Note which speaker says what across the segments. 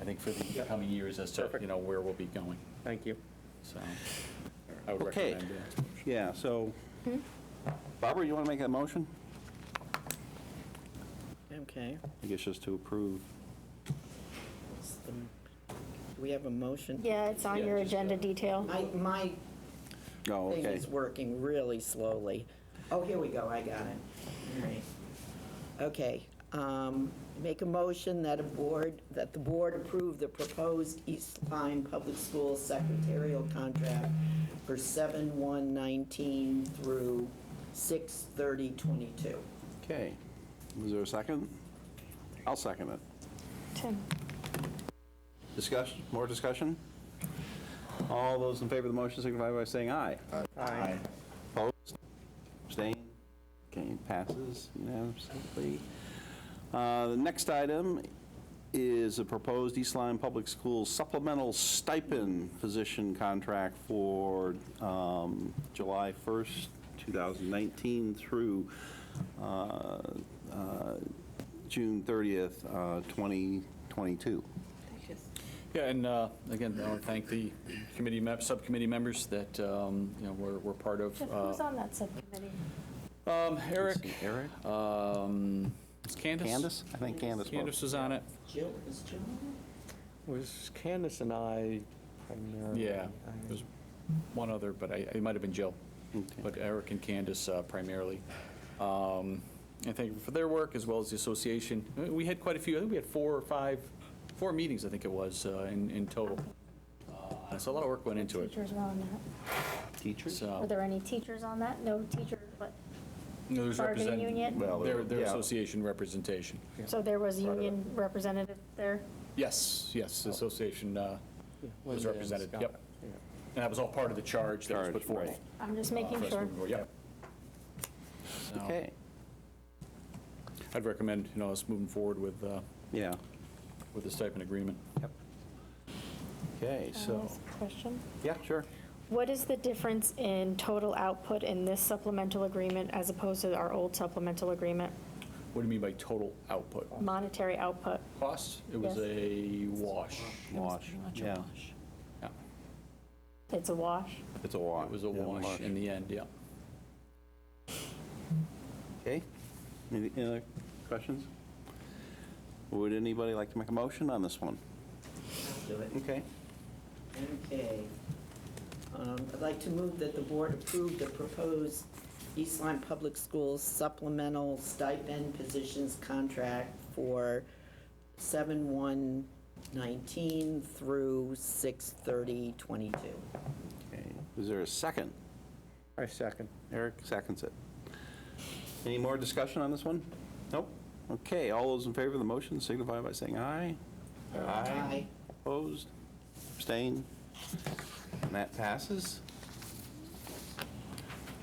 Speaker 1: I think, for the coming years as to,
Speaker 2: Perfect.
Speaker 1: you know, where we'll be going.
Speaker 2: Thank you.
Speaker 1: So I would
Speaker 3: Okay.
Speaker 1: recommend that.
Speaker 3: Yeah, so, Barbara, you want to make that motion?
Speaker 4: Okay.
Speaker 3: I guess just to approve.
Speaker 4: It's the- Do we have a motion?
Speaker 5: Yeah, it's on
Speaker 1: Yeah,
Speaker 5: your
Speaker 1: just, uh,
Speaker 5: agenda detail.
Speaker 4: My, my
Speaker 3: Oh,
Speaker 4: thing
Speaker 3: okay.
Speaker 4: is working really slowly. Oh, here we go, I got it. All right. Okay, um, make a motion that a board, that the board approve the proposed East Line Public Schools secretarial contract for 7/1/19 through 6/30/22.
Speaker 3: Okay. Is there a second? I'll second it.
Speaker 5: Tim?
Speaker 3: Discussion, more discussion? All those in favor of the motion signify by saying aye. Aye. Opposed? Abstained? Okay, passes unanimously. Uh, The next item is a proposed East Lyme Public Schools supplemental stipend position contract for um, July 1st, 2019 through uh, uh, June 30th, uh, 2022.
Speaker 1: Yeah, and uh, again, I want to thank the committee, mem- subcommittee members that, um, you know, were were part of.
Speaker 5: Jeff,
Speaker 1: uh,
Speaker 5: who's on that subcommittee?
Speaker 1: Um, Eric,
Speaker 3: See, Eric?
Speaker 1: um, it's Candace.
Speaker 3: Candace? I think Candace was.
Speaker 1: Candace was on it.
Speaker 4: Jill, is Jill on it?
Speaker 2: Was Candace and I primarily?
Speaker 1: Yeah, there's one other, but I, it might have been Jill, but Eric and Candace uh, primarily. Um, And thank you for their work, as well as the association. Uh, We had quite a few, I think we had four or five, four meetings, I think it was, uh, in, in total. Uh, So a lot of work went into it. Uh,
Speaker 5: Teachers were on that.
Speaker 3: Teachers?
Speaker 5: Were
Speaker 1: So,
Speaker 5: there any teachers on that? No teacher, but,
Speaker 1: you know, there's
Speaker 5: bargaining
Speaker 1: represent-
Speaker 5: union?
Speaker 3: Well,
Speaker 1: Their, their
Speaker 3: yeah.
Speaker 1: association representation.
Speaker 5: so there was a union representative there?
Speaker 1: Yes, yes, the association uh, was represented, yep. And that was all part of the charge that was put
Speaker 3: Charge,
Speaker 1: forth.
Speaker 3: right.
Speaker 5: I'm just
Speaker 1: uh,
Speaker 5: making
Speaker 1: for us
Speaker 5: sure.
Speaker 1: moving forward, Yep. So,
Speaker 3: Okay,
Speaker 1: I'd recommend, you know, us moving forward with, uh,
Speaker 3: yeah.
Speaker 1: with the stipend agreement.
Speaker 3: Okay,
Speaker 5: Can I
Speaker 3: so,
Speaker 5: ask a Question.
Speaker 3: yeah, sure.
Speaker 5: What is the difference in total output in this supplemental agreement as opposed to our old supplemental agreement?
Speaker 1: What do you mean by total output?
Speaker 5: Monetary output?
Speaker 1: Cost? It was
Speaker 5: Yes.
Speaker 1: a wash.
Speaker 3: Wash, yeah.
Speaker 1: Yeah,
Speaker 5: It's a wash?
Speaker 3: It's a wash.
Speaker 1: it was a
Speaker 3: Yeah,
Speaker 1: wash in the end, yeah.
Speaker 3: Okay, any any other questions? Would anybody like to make a motion on this one?
Speaker 4: Do it.
Speaker 3: Okay,
Speaker 4: Okay. Um, I'd like to move that the board approve the proposed East Lyme Public Schools supplemental stipend positions contract for 7/1/19 through 6/30/22.
Speaker 3: okay. Is there a second?
Speaker 2: I second.
Speaker 3: Eric seconds it. Any more discussion on this one? Nope. Okay, all those in favor of the motion signify by saying aye.
Speaker 4: Aye.
Speaker 3: Opposed? Abstained? And that passes.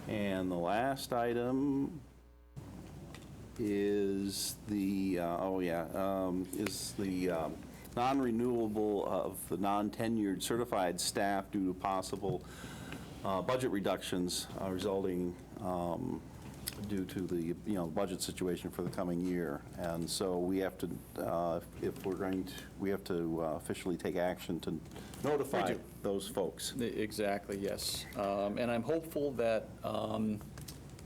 Speaker 3: And the last item is the, uh, oh yeah, um, is the um, non-renewable of the non-tenured certified staff due to possible uh, budget reductions uh, resulting um, due to the, you know, budget situation for the coming year. And so we have to, uh, if we're going to, we have to uh, officially take action to notify
Speaker 1: We do.
Speaker 3: those folks.
Speaker 1: E- Exactly, yes. Um, And I'm hopeful that um,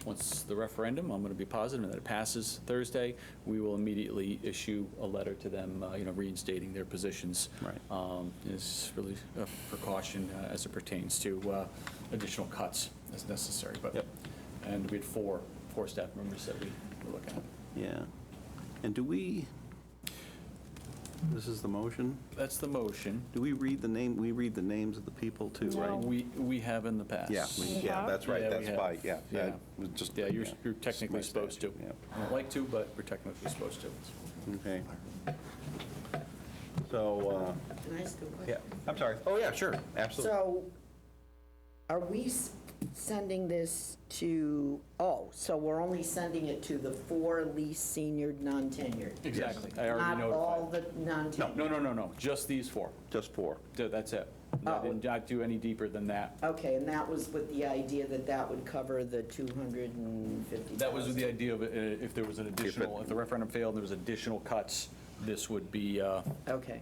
Speaker 1: once the referendum, I'm going to be positive that it passes Thursday, we will immediately issue a letter to them, uh, you know, reinstating their positions.
Speaker 3: Right.
Speaker 1: Um, It's really a precaution uh, as it pertains to uh, additional cuts as necessary, but,
Speaker 3: Yep.
Speaker 1: and we had four, four staff members that we were looking at.
Speaker 3: Yeah. And do we, this is the motion,
Speaker 1: That's the motion.
Speaker 3: do we read the name, we read the names of the people too,
Speaker 5: No.
Speaker 3: right?
Speaker 1: We, we have in the past.
Speaker 3: Yeah, we- yeah,
Speaker 5: have?
Speaker 3: that's right,
Speaker 1: Yeah, we
Speaker 3: that's
Speaker 1: have.
Speaker 3: by, yeah.
Speaker 1: Yeah.
Speaker 3: that was just-
Speaker 1: Yeah, you're you're technically
Speaker 3: Just my
Speaker 1: supposed to.
Speaker 3: statute,
Speaker 1: I don't like to, but we're technically supposed to.
Speaker 3: yeah. Okay. So, uh,
Speaker 4: Can I ask a question?
Speaker 3: yeah, I'm sorry. Oh, yeah, sure, absolutely.
Speaker 4: So are we s- sending this to, oh, so we're only sending it to the four least senior non-tenured?
Speaker 1: Exactly. I already
Speaker 4: Not all
Speaker 1: notified.
Speaker 4: the non-tenured?
Speaker 1: No, no, no, no, just these four.
Speaker 3: Just four.
Speaker 1: Th- That's it.
Speaker 4: Oh.
Speaker 1: I did not do any deeper than that.
Speaker 4: Okay, and that was with the idea that that would cover the 250,000?
Speaker 1: That was the idea of uh, if there was an additional, if the referendum failed and there was additional cuts, this would be, uh,
Speaker 4: Okay,